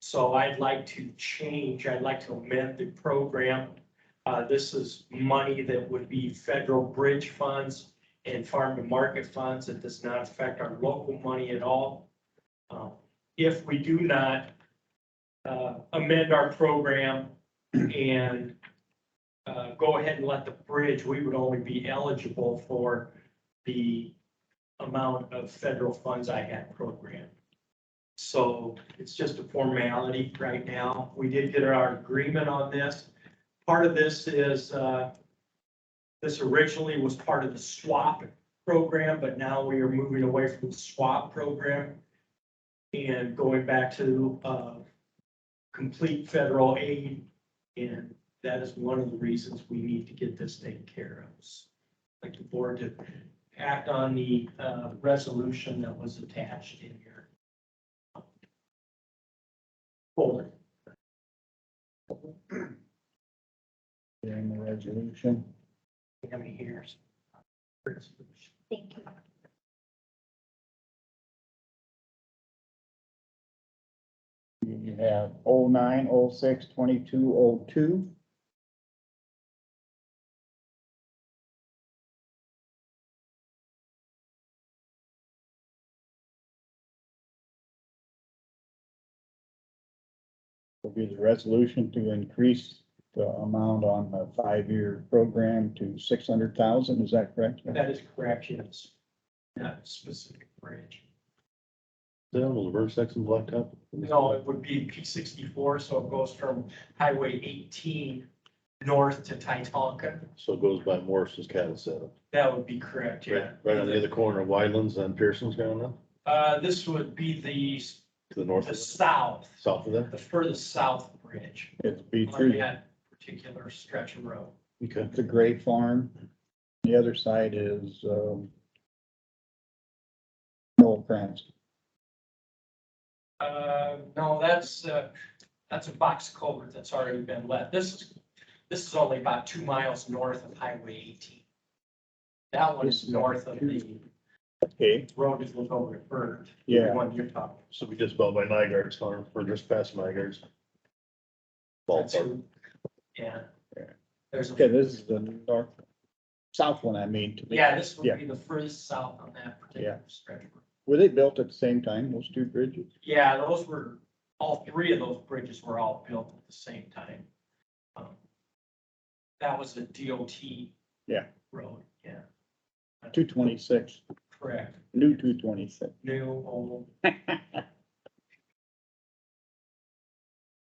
So I'd like to change, I'd like to amend the program. Uh, this is money that would be federal bridge funds and farm to market funds. It does not affect our local money at all. Um, If we do not, uh, amend our program and, uh, go ahead and let the bridge, we would only be eligible for the amount of federal funds I had programmed. So it's just a formality right now. We did get our agreement on this. Part of this is, uh, this originally was part of the swap program, but now we are moving away from the swap program and going back to, uh, complete federal aid. And that is one of the reasons we need to get this taken care of. I'd Like the board to act on the, uh, resolution that was attached in here. Folder. During the resolution. How many years? Thank you. You have oh nine, oh six, twenty-two, oh two. Will be the resolution to increase the amount on the five-year program to six hundred thousand, is that correct? That is correct, yes. Not a specific bridge. Down on the reverse section blacktop? No, it would be P sixty-four, so it goes from Highway eighteen north to Titanca. So it goes by Morris's cattle setup. That would be correct, yeah. Right, right on the other corner of Wylands and Pearson's going up Uh, this would be the, s- to the north, the of- south, south of there. the furthest south bridge It'd be on through, that particular stretch of road. Okay. the Gray Farm. The other side is, um, Noel Krantz. Uh, no, that's, uh, that's a box culvert that's already been let. This is, this is only about two miles north of Highway eighteen. That one is north of the Okay, road that goes over to Byrd. Yeah. The one you're talking. So we just about by Nygaard's farm, or just past Nygaard's. about. That's Ballpark. who- Yeah. There's, okay, a this is the north, south one, I mean. to the- yeah, this Yeah. would be the furthest south on that particular stretch. of road. Were they built at the same time, those two bridges? Yeah, those were, all three of those bridges were all built at the same time. Um, That was a DOT. Yeah. Road, yeah, Two twenty-six, correct. new two twenty-six. New, old,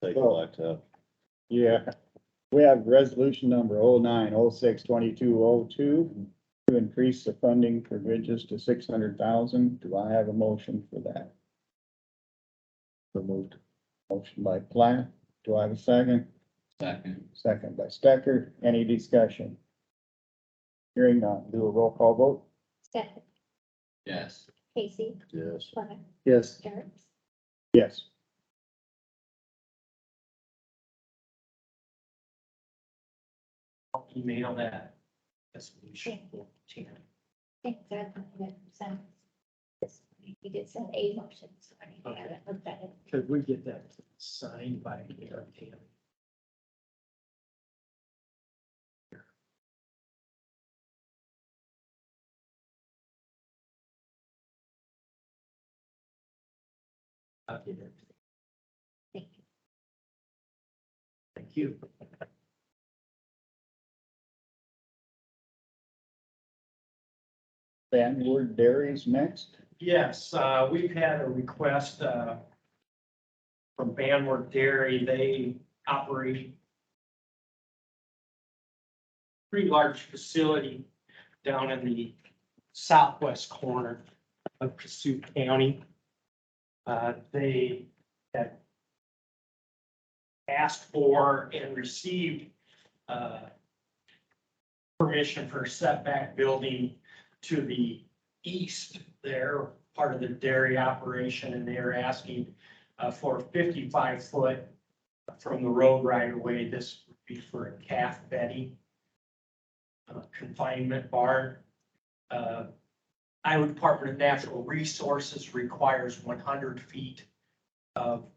Take the blacktop. Yeah. We have resolution number oh nine, oh six, twenty-two, oh two, to increase the funding for bridges to six hundred thousand. Do I have a motion for that? Removed. Motion by Platt. Do I have a second? Second. Second by Stecker. Any discussion? Hearing none. Do a roll call vote? Stefan, Yes. Casey, Yes. Platt, Yes. Jerks. Yes. I'll um, email that. That's what we should Thank you. Thanks, I thought that sounds. this- You did send a motion, so I haven't looked at it. Could we get that signed by Eric Taylor? I'll get it. Thank you. Thank you. Van Wert Dairies next. Yes, uh, we've had a request, uh, from Banworth Dairy. They operate pretty large facility down in the southwest corner of Cassup County. Uh, they had asked for and received, uh, permission for setback building to the east there, part of the dairy operation, and they're asking uh, for fifty-five foot from the road right away. This would be for a calf bedding uh, confinement barn. Uh, Iowa Department of Natural Resources requires one hundred feet of